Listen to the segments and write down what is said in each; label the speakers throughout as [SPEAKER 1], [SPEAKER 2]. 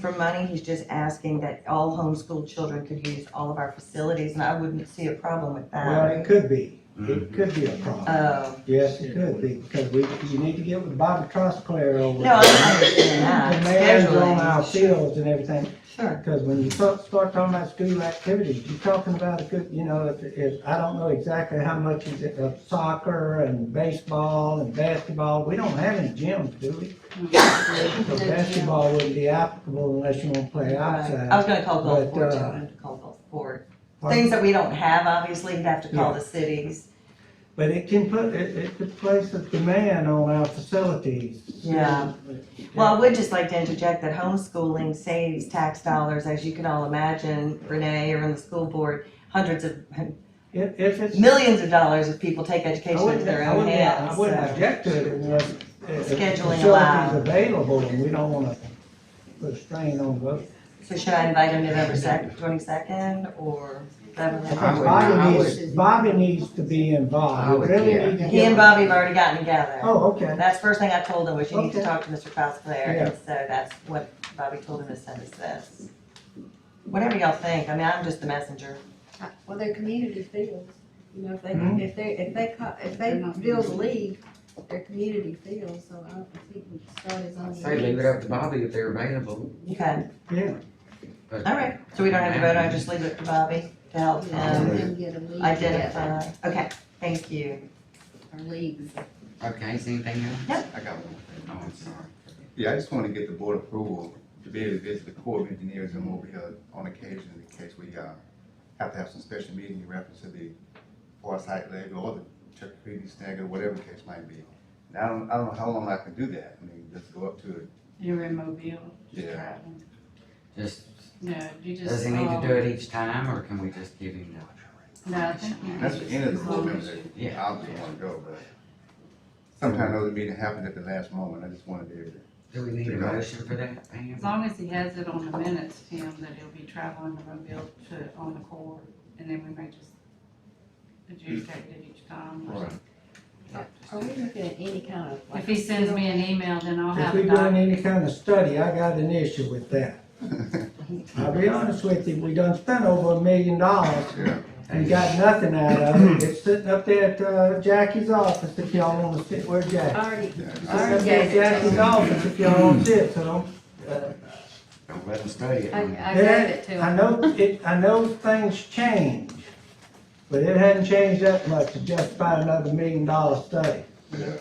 [SPEAKER 1] for money, he's just asking that all homeschooled children could use all of our facilities, and I wouldn't see a problem with
[SPEAKER 2] Well,
[SPEAKER 1] that.
[SPEAKER 2] it could be, it
[SPEAKER 3] Mhm.
[SPEAKER 2] could be a problem.
[SPEAKER 1] Uh,
[SPEAKER 2] Yes, it could be, because we, you need to get with Bobby Trostclair over.
[SPEAKER 1] No, I understand that.
[SPEAKER 2] The mayor's on our
[SPEAKER 1] Scheduling.
[SPEAKER 2] fields and everything,
[SPEAKER 1] sure,
[SPEAKER 2] because when you start, start talking about school activities, you're talking about a good, you know, if, if, I don't know exactly how much is it of soccer and baseball and basketball, we don't have any gyms, do we? So basketball wouldn't be applicable unless you wanna play
[SPEAKER 1] right. I was
[SPEAKER 2] outside.
[SPEAKER 1] gonna call Gulfport,
[SPEAKER 2] But,
[SPEAKER 1] too,
[SPEAKER 2] uh,
[SPEAKER 1] I wanted to call Gulfport. Oh, Things that we don't have, obviously, you'd have to call the cities.
[SPEAKER 2] But it can put, it, it could place a demand on our facilities.
[SPEAKER 1] Yeah. Well, I would just like to interject that homeschooling saves tax dollars, as you can all imagine, Renee, or in the school board, hundreds of,
[SPEAKER 2] If, if it's.
[SPEAKER 1] millions of dollars if people take
[SPEAKER 2] I
[SPEAKER 1] education into
[SPEAKER 2] wouldn't,
[SPEAKER 1] their
[SPEAKER 2] I
[SPEAKER 1] own
[SPEAKER 2] wouldn't, I
[SPEAKER 1] hands,
[SPEAKER 2] wouldn't
[SPEAKER 1] so.
[SPEAKER 2] object to it unless. if- if
[SPEAKER 1] Scheduling
[SPEAKER 2] facilities
[SPEAKER 1] allowed.
[SPEAKER 2] Available and we don't wanna put a strain on those.
[SPEAKER 1] So should I invite him November second, twenty-second, or?
[SPEAKER 3] I would- I
[SPEAKER 2] Bobby needs,
[SPEAKER 3] would-
[SPEAKER 2] Bobby needs to be
[SPEAKER 3] I
[SPEAKER 2] involved.
[SPEAKER 3] would
[SPEAKER 2] We really
[SPEAKER 3] care.
[SPEAKER 2] need to
[SPEAKER 1] He
[SPEAKER 2] get-
[SPEAKER 1] and Bobby have already gotten together.
[SPEAKER 2] Oh, okay.
[SPEAKER 1] That's the first thing I told him, was you need to
[SPEAKER 2] Okay.
[SPEAKER 1] talk to Mr. Cosclair, and so that's what Bobby told him to send us this. Whatever y'all think, I mean, I'm just the messenger.
[SPEAKER 4] Well, they're community fields, you know, if they,
[SPEAKER 2] Mhm.
[SPEAKER 4] if they, if they, co- if they build a league, they're community fields, so I don't think we can start his own.
[SPEAKER 3] Say leave it up to Bobby if they're available.
[SPEAKER 1] Okay,
[SPEAKER 2] Yeah,
[SPEAKER 3] but-
[SPEAKER 1] all right, so we don't have to vote, I just leave it to Bobby to help
[SPEAKER 4] And
[SPEAKER 1] him
[SPEAKER 4] then get a
[SPEAKER 3] Um,
[SPEAKER 4] league together,
[SPEAKER 1] identify. uh, Okay, thank you.
[SPEAKER 4] or leagues.
[SPEAKER 3] Okay, is anything else?
[SPEAKER 1] Yep.
[SPEAKER 3] I got one. Oh, I'm sorry.
[SPEAKER 5] Yeah, I just want to get the board approval to be able to visit the Corps of Engineers and over here on occasion in case we, uh, have to have some special meeting in reference to the Forsyth Lake or the Tuckapee Snagger, whatever the case might be. And I don't, I don't know how long I can do that. I mean, just go up to it.
[SPEAKER 6] You're in Mobile.
[SPEAKER 5] Yeah.
[SPEAKER 3] Just,
[SPEAKER 6] No, you just.
[SPEAKER 3] does he need to
[SPEAKER 6] um,
[SPEAKER 3] do it each time or can we just give him the?
[SPEAKER 6] No, I think. you
[SPEAKER 5] That's the end of the board member that
[SPEAKER 3] Yeah.
[SPEAKER 5] obviously want to go, but sometimes those meetings happen at the last moment. I just want to be able to.
[SPEAKER 3] Do we need a motion for that, Pam?
[SPEAKER 6] As long as he has it on the minutes, Tim, that he'll be traveling to Mobile to, on the court, and then we may just adjudicate it each time. or something.
[SPEAKER 4] Are we looking at any kind of? like,
[SPEAKER 6] If he sends me an email, then I'll
[SPEAKER 2] if
[SPEAKER 6] have
[SPEAKER 2] we're
[SPEAKER 6] a
[SPEAKER 2] doing
[SPEAKER 6] document.
[SPEAKER 2] any kind of study, I got an issue with that. I'll be honest with you, we done spent over a million dollars
[SPEAKER 5] Yeah,
[SPEAKER 2] We got nothing out of it. It's sitting up there at uh, Jackie's office if y'all wanna sit, where
[SPEAKER 4] I
[SPEAKER 2] Jackie?
[SPEAKER 4] Already,
[SPEAKER 5] yeah.
[SPEAKER 2] It's
[SPEAKER 4] I
[SPEAKER 2] up
[SPEAKER 4] already
[SPEAKER 2] there at
[SPEAKER 4] gave it
[SPEAKER 2] Jackie's
[SPEAKER 4] to him.
[SPEAKER 2] office if y'all wanna sit, so don't. uh,
[SPEAKER 3] Don't let him study it.
[SPEAKER 4] I,
[SPEAKER 3] man.
[SPEAKER 4] I gave it to him.
[SPEAKER 2] I know, it, I know things change, but it hadn't changed that much to justify another million dollar study.
[SPEAKER 5] Yeah,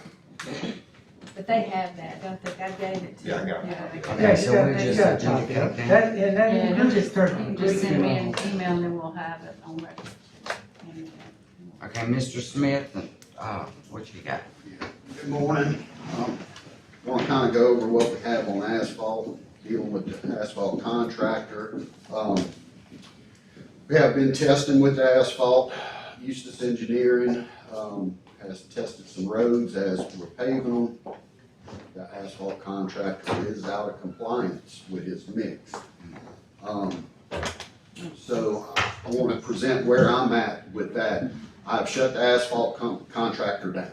[SPEAKER 4] But they have that, don't they? I gave it to
[SPEAKER 5] yeah, I
[SPEAKER 4] them.
[SPEAKER 5] got it.
[SPEAKER 6] Yeah,
[SPEAKER 3] Okay,
[SPEAKER 2] Yeah,
[SPEAKER 3] so
[SPEAKER 2] you got-
[SPEAKER 3] we
[SPEAKER 2] you
[SPEAKER 3] just
[SPEAKER 2] got a copy
[SPEAKER 3] adjudicate
[SPEAKER 2] of it.
[SPEAKER 3] that?
[SPEAKER 2] That, and that,
[SPEAKER 6] Yeah,
[SPEAKER 2] you do just turn.
[SPEAKER 6] You Just send me an email, then we'll have it on record. And,
[SPEAKER 3] Okay, Mr. Smith, uh, what you got?
[SPEAKER 7] Good morning. Want to kind of go over what we have on asphalt, dealing with the asphalt contractor. Um, We have been testing with asphalt. Eustis Engineering um, has tested some roads as we're paving them. The asphalt contractor is out of compliance with his mix. Um, So I want to present where I'm at with that. I've shut the asphalt con- contractor down.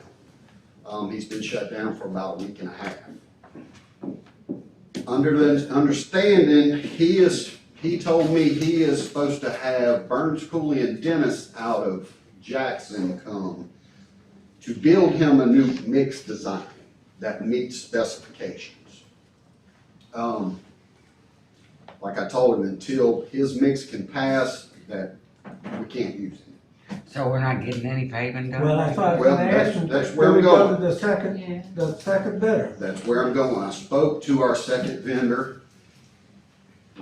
[SPEAKER 7] Um, he's been shut down for about a week and a half. Under the understanding, he is, he told me he is supposed to have Burns Cooley and Dennis out of Jackson come to build him a new mix design that meets specifications. Um, like I told him, until his mix can pass, that we can't use it.
[SPEAKER 3] So we're not getting any paving done?
[SPEAKER 2] Well, that's what I was
[SPEAKER 7] Well,
[SPEAKER 2] gonna
[SPEAKER 7] that's-
[SPEAKER 2] ask you.
[SPEAKER 7] that's where
[SPEAKER 2] Do
[SPEAKER 7] we're
[SPEAKER 2] go
[SPEAKER 7] going.
[SPEAKER 2] to The second,
[SPEAKER 6] Yeah,
[SPEAKER 2] the second bidder.
[SPEAKER 7] That's where I'm going. I spoke to our second vendor.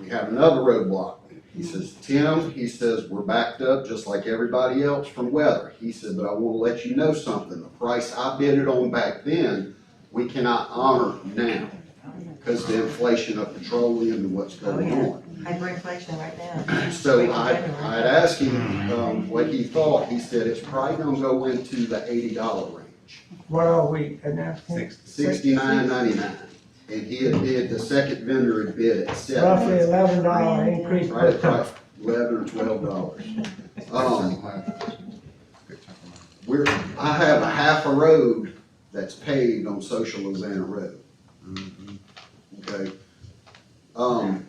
[SPEAKER 7] We have another roadblock. He says, Tim, he says, we're backed up just like everybody else from weather. He said, but I wanna let you know something. The price I bid it on back then, we cannot honor now because the inflation of petroleum and what's going
[SPEAKER 1] Oh, yeah.
[SPEAKER 7] on.
[SPEAKER 1] Hyperinflation right now.
[SPEAKER 7] So I, I'd asked him, um, what he thought. He said, it's probably gonna go into the eighty dollar range.
[SPEAKER 2] What are we, and that's.
[SPEAKER 5] Six.
[SPEAKER 7] sixty-nine ninety-nine. And he had bid, the second vendor had bid at
[SPEAKER 2] Roughly
[SPEAKER 7] seven,
[SPEAKER 2] eleven dollar increase
[SPEAKER 7] right
[SPEAKER 2] per
[SPEAKER 7] at
[SPEAKER 2] ton.
[SPEAKER 7] about eleven or twelve dollars. Um,
[SPEAKER 5] Good chunk of money.
[SPEAKER 7] we're, I have a half a road that's paved on Social Louisiana Road,
[SPEAKER 3] Mhm.
[SPEAKER 7] okay? Um,